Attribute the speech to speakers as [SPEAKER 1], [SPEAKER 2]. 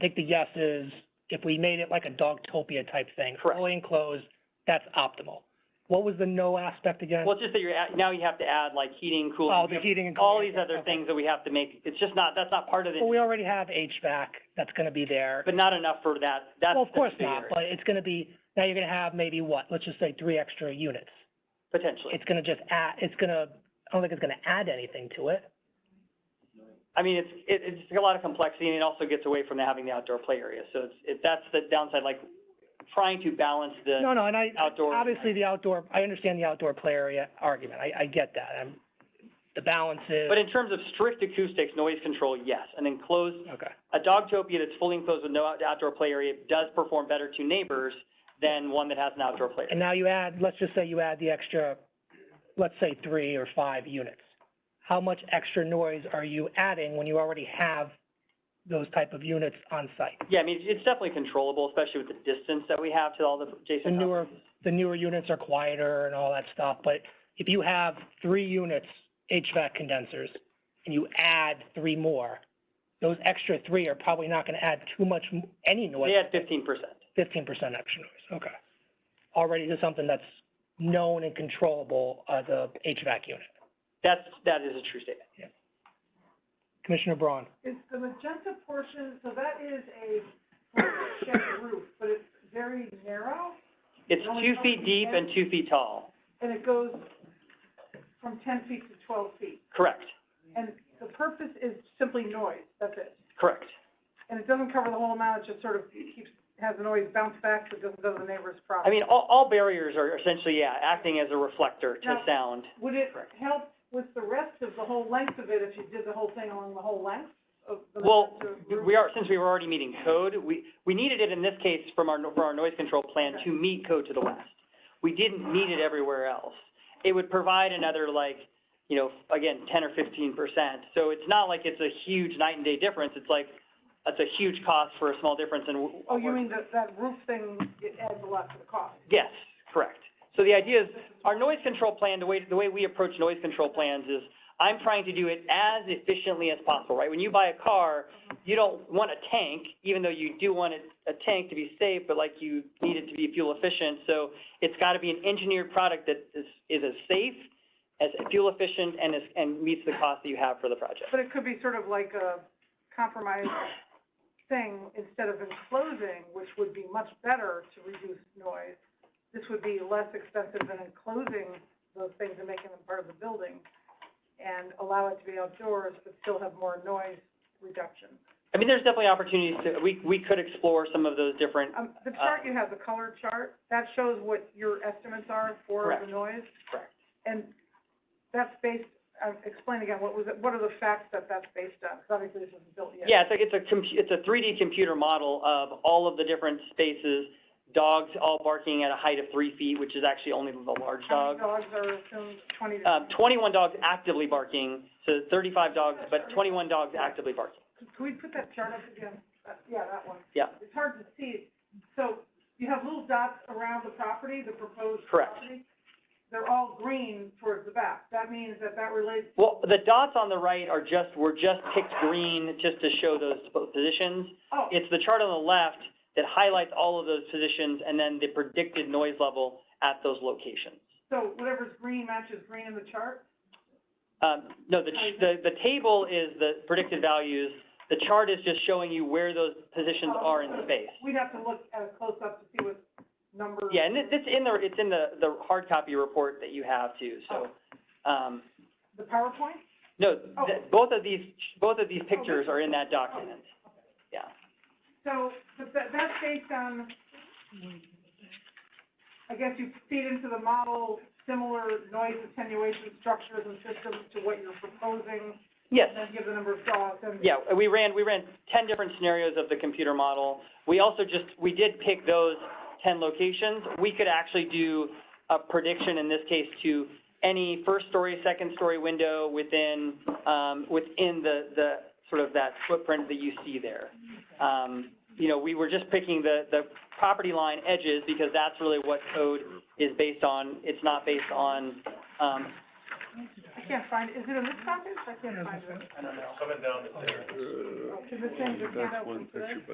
[SPEAKER 1] think the yes is if we made it like a Dogtopia type thing,
[SPEAKER 2] Correct.
[SPEAKER 1] fully enclosed, that's optimal. What was the no aspect again?
[SPEAKER 2] Well, it's just that you're, at- now you have to add like heating,
[SPEAKER 1] Oh,
[SPEAKER 2] cooling,
[SPEAKER 1] the heating and
[SPEAKER 2] all
[SPEAKER 1] cooling,
[SPEAKER 2] these other
[SPEAKER 1] okay.
[SPEAKER 2] things that we have to make, it's just not, that's not part of it,
[SPEAKER 1] Well, we already have HVAC that's gonna be there.
[SPEAKER 2] but not enough for that, that's
[SPEAKER 1] Well, of
[SPEAKER 2] the
[SPEAKER 1] course not,
[SPEAKER 2] bigger-
[SPEAKER 1] but it's gonna be, now you're gonna have maybe what, let's just say three extra units.
[SPEAKER 2] Potentially.
[SPEAKER 1] It's gonna just add, it's gonna, I don't think it's gonna add anything to it.
[SPEAKER 2] I mean, it's, it, it's just a lot of complexity and it also gets away from having the outdoor play area. So it's, it, that's the downside, like trying to balance the
[SPEAKER 1] No, no, and I,
[SPEAKER 2] outdoor.
[SPEAKER 1] obviously the outdoor, I understand the outdoor play area argument, I, I get that, I'm, the balance is,
[SPEAKER 2] But in terms of strict acoustics, noise control, yes. An enclosed,
[SPEAKER 1] okay.
[SPEAKER 2] a Dogtopia that's fully enclosed with no out- outdoor play area does perform better to neighbors than one that has an outdoor play
[SPEAKER 1] And
[SPEAKER 2] area.
[SPEAKER 1] now you add, let's just say you add the extra, let's say three or five units. How much extra noise are you adding when you already have those type of units on site?
[SPEAKER 2] Yeah, I mean, it's definitely controllable, especially with the distance that we have to all the
[SPEAKER 1] The
[SPEAKER 2] adjacent
[SPEAKER 1] newer,
[SPEAKER 2] properties.
[SPEAKER 1] the newer units are quieter and all that stuff, but if you have three units HVAC condensers and you add three more, those extra three are probably not gonna add too much, m- any noise.
[SPEAKER 2] They had fifteen percent.
[SPEAKER 1] fifteen percent extra noise, okay. Already to something that's known and controllable as a HVAC unit.
[SPEAKER 2] That's, that is a true statement.
[SPEAKER 1] Commissioner Braun?
[SPEAKER 3] Is the magenta portion, so that is a forward shed roof, but it's very narrow,
[SPEAKER 2] It's
[SPEAKER 3] Only
[SPEAKER 2] two feet
[SPEAKER 3] something
[SPEAKER 2] deep
[SPEAKER 3] ten?
[SPEAKER 2] and two feet tall.
[SPEAKER 3] and it goes from ten feet to twelve feet.
[SPEAKER 2] Correct,
[SPEAKER 3] And the purpose is simply noise, that's it.
[SPEAKER 2] correct.
[SPEAKER 3] And it doesn't cover the whole amount, it just sort of keeps, has the noise bounce back, so it doesn't go to the neighbor's
[SPEAKER 2] I
[SPEAKER 3] property.
[SPEAKER 2] mean, all, all barriers are essentially, yeah, acting as a reflector to
[SPEAKER 3] Now-
[SPEAKER 2] sound.
[SPEAKER 3] Would it help with the rest of the whole length of it if you did the whole thing along the whole length of the
[SPEAKER 2] Well,
[SPEAKER 3] magenta roof?
[SPEAKER 2] we are, since we were already meeting code, we, we needed it in this case from our, for our noise control plan to meet code to the west. We didn't need it everywhere else. It would provide another like, you know, again, ten or fifteen percent. So it's not like it's a huge night and day difference. It's like, it's a huge cost for a small difference and. w-
[SPEAKER 3] Oh, you
[SPEAKER 2] we're-
[SPEAKER 3] mean that, that roof thing, it adds a lot to the cost?
[SPEAKER 2] Yes, correct. So the idea is, our noise control plan, the way, the way we approach noise control plans is, I'm trying to do it as efficiently as possible, right? When you buy a car, you don't want a tank, even though you do want a, a tank to be safe, but like you need it to be fuel efficient. So it's gotta be an engineered product that is, is as safe, as fuel efficient, and is, and meets the cost that you have for the project.
[SPEAKER 3] But it could be sort of like a compromise thing, instead of enclosing, which would be much better to reduce noise, this would be less expensive than enclosing those things and making them part of the building, and allow it to be outdoors, but still have more noise reduction.
[SPEAKER 2] I mean, there's definitely opportunities to, we, we could explore some of those different,
[SPEAKER 3] Um, the chart you have, the color chart, that shows what your estimates are for
[SPEAKER 2] Correct.
[SPEAKER 3] the noise,
[SPEAKER 2] correct.
[SPEAKER 3] and that's based, uh, explain again, what was it, what are the facts that that's based on? 'Cause obviously this isn't built yet.
[SPEAKER 2] Yeah, it's like, it's a compu- it's a three D computer model of all of the different spaces, dogs all barking at a height of three feet, which is actually only the large
[SPEAKER 3] How
[SPEAKER 2] dog.
[SPEAKER 3] many dogs are assumed, twenty to?
[SPEAKER 2] Um, twenty-one dogs actively barking, so thirty-five dogs, but twenty-one dogs actively barking.
[SPEAKER 3] Could could we put that chart up again? Uh, Yeah, that one.
[SPEAKER 2] Yeah.
[SPEAKER 3] It's hard to see. So you have little dots around the property, the proposed
[SPEAKER 2] Correct.
[SPEAKER 3] property. They're all green towards the back. That means that that relates,
[SPEAKER 2] Well, the dots on the right are just, were just picked green just to show those po- positions.
[SPEAKER 3] oh,
[SPEAKER 2] It's the chart on the left that highlights all of those positions and then the predicted noise level at those locations.
[SPEAKER 3] so whatever's green matches green in the chart?
[SPEAKER 2] Um, no, the, ch- the, the table is the predicted values. The chart is just showing you where those positions are in space.
[SPEAKER 3] We'd have to look at a close-up to see what number.
[SPEAKER 2] Yeah, and it- it's in the, it's in the, the hard copy report that you have too, so, um,
[SPEAKER 3] The PowerPoint?
[SPEAKER 2] no, th both of these, both of these pictures are in that document. Yeah,
[SPEAKER 3] So, but that, that's based on, I guess you feed into the model similar noise attenuation structures and systems to what you're proposing,
[SPEAKER 2] yes,
[SPEAKER 3] and then give the number of dogs, and
[SPEAKER 2] yeah, we ran, we ran ten different scenarios of the computer model. We also just, we did pick those ten locations. We could actually do a prediction in this case to any first story, second story window within, um, within the, the, sort of that footprint that you see there. Um, you know, we were just picking the, the property line edges because that's really what code is based on. It's not based on, um,
[SPEAKER 3] I can't find, is it in this document? I can't find it.
[SPEAKER 2] I don't know.
[SPEAKER 3] Is it saying you can't open today?